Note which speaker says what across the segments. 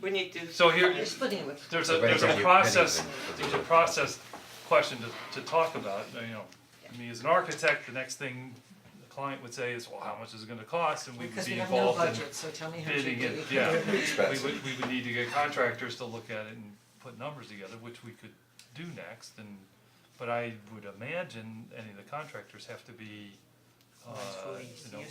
Speaker 1: we need to.
Speaker 2: So here-
Speaker 3: You're splitting it with,
Speaker 2: There's
Speaker 4: So
Speaker 2: a, there's a
Speaker 4: basically,
Speaker 2: process,
Speaker 4: anything for the
Speaker 2: there's a
Speaker 4: road.
Speaker 2: process question to, to talk about, you know. I mean, as an architect, the next thing the client would say is, well, how much is it gonna cost, and we would
Speaker 3: because
Speaker 2: be
Speaker 3: we have no
Speaker 2: involved in
Speaker 3: budget, so tell me how cheap
Speaker 2: bidding
Speaker 3: we can do
Speaker 2: it,
Speaker 3: it.
Speaker 2: yeah. We
Speaker 4: expensive.
Speaker 2: would, we would need to get contractors to look at it and put numbers together, which we could do next, and, but I would imagine any of the contractors have to be, uh, you know, uh,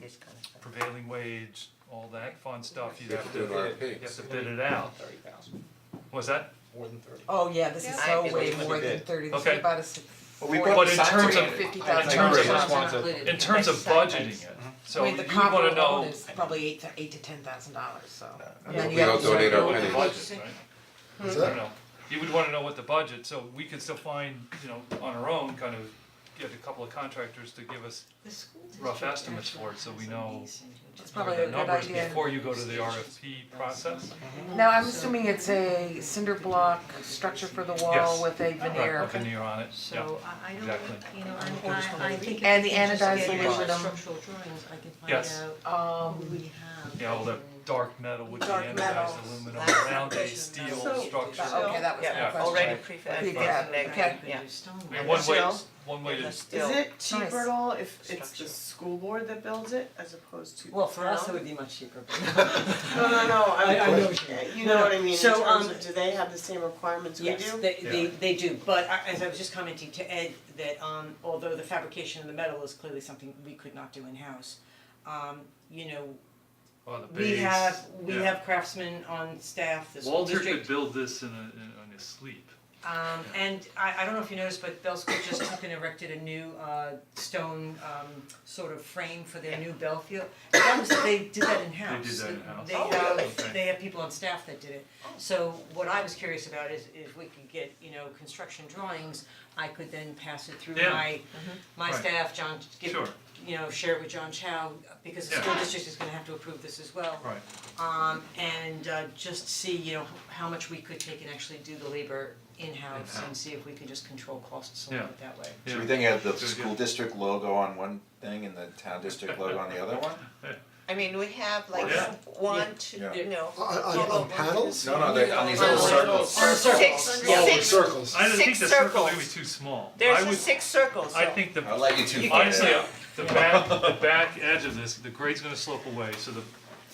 Speaker 1: this kind of thing.
Speaker 2: prevailing wage, all that fun stuff, you
Speaker 4: You have to do an RFP.
Speaker 2: you have to bid it out.
Speaker 5: Thirty thousand,
Speaker 2: Was that,
Speaker 5: more than thirty.
Speaker 3: Oh, yeah, this is so
Speaker 5: Yeah,
Speaker 3: way
Speaker 5: it's
Speaker 3: more than
Speaker 5: bid.
Speaker 3: thirty, this
Speaker 2: Okay.
Speaker 3: is about a six,
Speaker 5: Well, we
Speaker 3: forty,
Speaker 2: But in terms
Speaker 3: fifty
Speaker 2: of-
Speaker 3: thousand
Speaker 2: in
Speaker 3: dollars.
Speaker 2: terms of-
Speaker 6: included.
Speaker 2: in terms of budgeting it, so
Speaker 3: I
Speaker 2: you
Speaker 3: mean, the
Speaker 2: would
Speaker 3: copper
Speaker 2: wanna
Speaker 3: alone
Speaker 2: know,
Speaker 3: is probably eight to eight to ten thousand dollars, so. And
Speaker 4: Yeah.
Speaker 3: then
Speaker 4: We
Speaker 3: you have
Speaker 4: don't
Speaker 3: to
Speaker 4: donate
Speaker 3: start
Speaker 4: our
Speaker 2: what
Speaker 3: building.
Speaker 2: the budget, right?
Speaker 7: Hmm.
Speaker 4: What's
Speaker 2: I don't know. You would wanna know what the budget, so we could still find, you know, on our own, kind of get a couple of contractors to give us rough estimates for it, so we know
Speaker 3: It's probably
Speaker 2: the
Speaker 3: a good
Speaker 2: numbers
Speaker 3: idea.
Speaker 2: before you go to the RFP process.
Speaker 3: Now, I'm assuming it's a cinder block structure for the
Speaker 2: Yes.
Speaker 3: wall with a
Speaker 2: Right,
Speaker 3: veneer.
Speaker 2: a veneer on it, yeah.
Speaker 6: So I I don't,
Speaker 2: exactly.
Speaker 6: you know, I'm- I I think
Speaker 3: And
Speaker 6: if we
Speaker 3: the
Speaker 6: can just
Speaker 3: anodized
Speaker 6: get
Speaker 3: aluminum.
Speaker 6: structural drawings, I can find
Speaker 2: Yes.
Speaker 6: out who
Speaker 3: Um,
Speaker 6: we have.
Speaker 2: Yeah, all the dark metal with the
Speaker 1: Dark
Speaker 2: anodized
Speaker 1: metal.
Speaker 2: aluminum
Speaker 6: That's
Speaker 2: around a
Speaker 6: efficient.
Speaker 2: steel
Speaker 6: So-
Speaker 2: structure.
Speaker 1: oh,
Speaker 3: but okay, that was my
Speaker 2: Yeah.
Speaker 3: question.
Speaker 1: Already
Speaker 3: Prefab,
Speaker 1: prefabricated,
Speaker 3: okay.
Speaker 1: yeah.
Speaker 2: I mean, one way,
Speaker 1: Still-
Speaker 2: one way to,
Speaker 1: Is it
Speaker 3: Nice.
Speaker 1: cheaper at all if it's
Speaker 6: Structure.
Speaker 1: the school board that builds it as opposed to the town?
Speaker 3: Well, for us, it would be much cheaper.
Speaker 1: No, no, no, I,
Speaker 8: I- I know what
Speaker 1: I, you know what I mean, in
Speaker 8: So,
Speaker 1: terms
Speaker 8: um,
Speaker 1: of, do they have the same requirements we do?
Speaker 8: Yes, they they they do, but I as I was just commenting to Ed that um although the fabrication of the metal is clearly something we could not do in-house, um you know,
Speaker 2: oh, the base,
Speaker 8: we have, we
Speaker 2: yeah.
Speaker 8: have craftsmen on staff, the school
Speaker 2: Walter
Speaker 8: district.
Speaker 2: could build this in a, in, on his sleep.
Speaker 8: Um and I I don't know if you noticed, but Bell School just took and erected a new uh stone um sort of frame for their new bell field. That was, they did that in-house.
Speaker 2: that in-house.
Speaker 8: They
Speaker 2: Oh,
Speaker 8: have,
Speaker 2: really? Oh.
Speaker 8: they have people on staff that did it. So what I was curious about is if we could get, you know, construction drawings, I could then pass it through
Speaker 2: Yeah.
Speaker 8: my my
Speaker 2: Right.
Speaker 8: staff, John, give,
Speaker 2: Sure.
Speaker 8: you know, share it with John Chow, because the
Speaker 2: Yeah.
Speaker 8: school district is gonna have to approve this as well.
Speaker 2: Right.
Speaker 8: Um, and uh, just see, you know, how much we could take and actually do the labor in-house and
Speaker 2: In-house.
Speaker 8: see if we can just control costs a
Speaker 2: Yeah.
Speaker 8: little bit that way.
Speaker 2: Yeah.
Speaker 7: So we think of the
Speaker 2: Good,
Speaker 7: school
Speaker 2: good.
Speaker 7: district logo on one thing and the town district logo on the other one?
Speaker 9: I mean, we have like
Speaker 2: Yeah.
Speaker 9: one, two,
Speaker 7: Yeah.
Speaker 9: you know,
Speaker 5: On on on panels?
Speaker 7: No, no, they, on these little
Speaker 9: On
Speaker 7: circles.
Speaker 9: on six,
Speaker 5: Oh,
Speaker 9: six,
Speaker 5: circles.
Speaker 2: I don't think
Speaker 9: Six
Speaker 2: the circle may be
Speaker 9: circles.
Speaker 2: too small. I
Speaker 9: there's a
Speaker 2: would-
Speaker 9: six circles, so.
Speaker 2: I think the
Speaker 7: I'll let you two.
Speaker 2: Honestly, uh,
Speaker 7: figure it out.
Speaker 2: the back, the back edge of this, the grade's gonna slope away, so the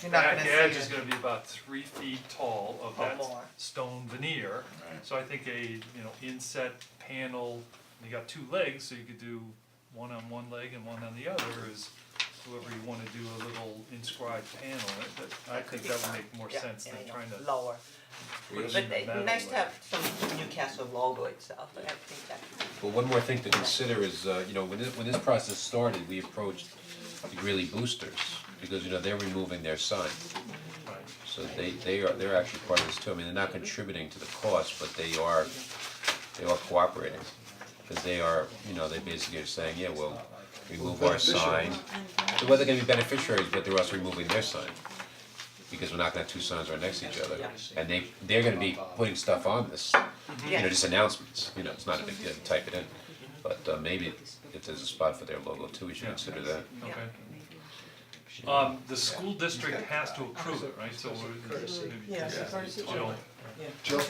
Speaker 3: You're not
Speaker 2: back
Speaker 3: gonna see
Speaker 2: edge is
Speaker 3: it.
Speaker 2: gonna be about three feet tall of that
Speaker 9: more.
Speaker 2: stone veneer. So I think a, you know, inset panel, you got two legs, so you could do one on one leg and one on the other is whoever you wanna do a little inscribed panel, that, that, I think that would make more
Speaker 9: Yeah,
Speaker 2: sense than
Speaker 9: yeah, I know.
Speaker 2: trying to.
Speaker 9: Lower,
Speaker 2: put it
Speaker 9: but
Speaker 2: in the
Speaker 9: it-
Speaker 2: metal
Speaker 9: nice to
Speaker 2: way.
Speaker 9: have some Newcastle logo itself, I think that.
Speaker 4: But one more thing to consider is, uh, you know, when this, when this process started, we approached the Greeley Boosters, because, you know, they're removing their sign. So they, they are, they're actually part of this too, I mean, they're not contributing to the cost, but they are, they are cooperating. Cause they are, you know, they basically are saying, yeah, well, remove our sign, so whether they're gonna be beneficiaries, but they're also removing their sign. Because we're not gonna have two signs right next to each other, and they, they're gonna be putting stuff on this,
Speaker 8: Mm-hmm.
Speaker 4: you know, just announcements, you know, it's not a big deal to type it in. But uh maybe if there's a spot for their logo too, we should consider that.
Speaker 2: Okay. Um, the school district has to approve it, right, so we're, maybe, Jill.
Speaker 5: Jill?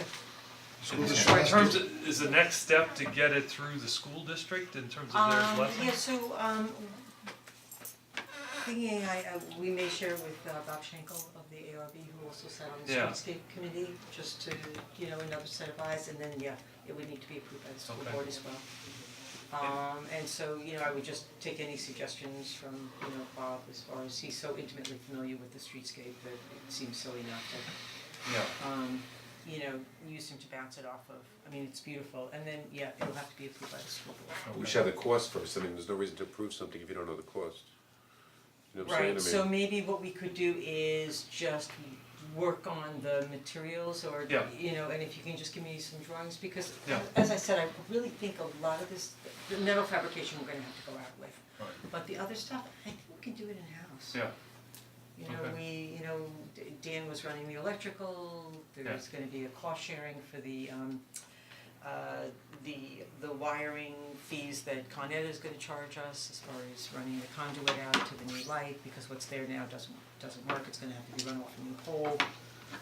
Speaker 5: School district
Speaker 2: In
Speaker 5: has to-
Speaker 2: terms, of- is the next step to get it through the school district in terms of their
Speaker 8: Um,
Speaker 2: blessing?
Speaker 6: yeah,
Speaker 8: yeah, so, um, thinking I, uh, we may share with uh, Bob Schenkel of the ARB, who also sat on the
Speaker 2: Yeah.
Speaker 8: streetscape committee, just to, you know, another set of eyes, and then, yeah, it would need to be approved by the school
Speaker 2: Okay.
Speaker 8: board as well. Um, and so, you know, I would just take any suggestions from, you know, Bob, as far as he's so intimately familiar with the streetscape that it seems silly not to
Speaker 2: Yeah.
Speaker 8: um, you know, use him to bounce it off of. I mean, it's beautiful, and then, yeah, it'll have to be approved by the school board.
Speaker 10: We should have the cost first, I mean, there's no reason to approve something if you don't know the cost. You know what I'm saying, I mean.
Speaker 8: Right, so maybe what we could do is just work on the materials or,
Speaker 2: Yeah.
Speaker 8: you know, and if you can just give me some drawings, because
Speaker 2: Yeah.
Speaker 8: as I said, I really think a lot of this, the metal fabrication, we're gonna have to go out with.
Speaker 2: Right.
Speaker 8: But the other stuff, I think we can do it in-house.
Speaker 2: Yeah.
Speaker 8: You know,
Speaker 2: Okay.
Speaker 8: we, you know, D- Dan was running the electrical, there's gonna be a cost sharing for the um uh the the wiring fees that Con Ed is gonna charge us as far as running the conduit out to the new light, because what's there now doesn't doesn't work, it's gonna have to be run off a new pole.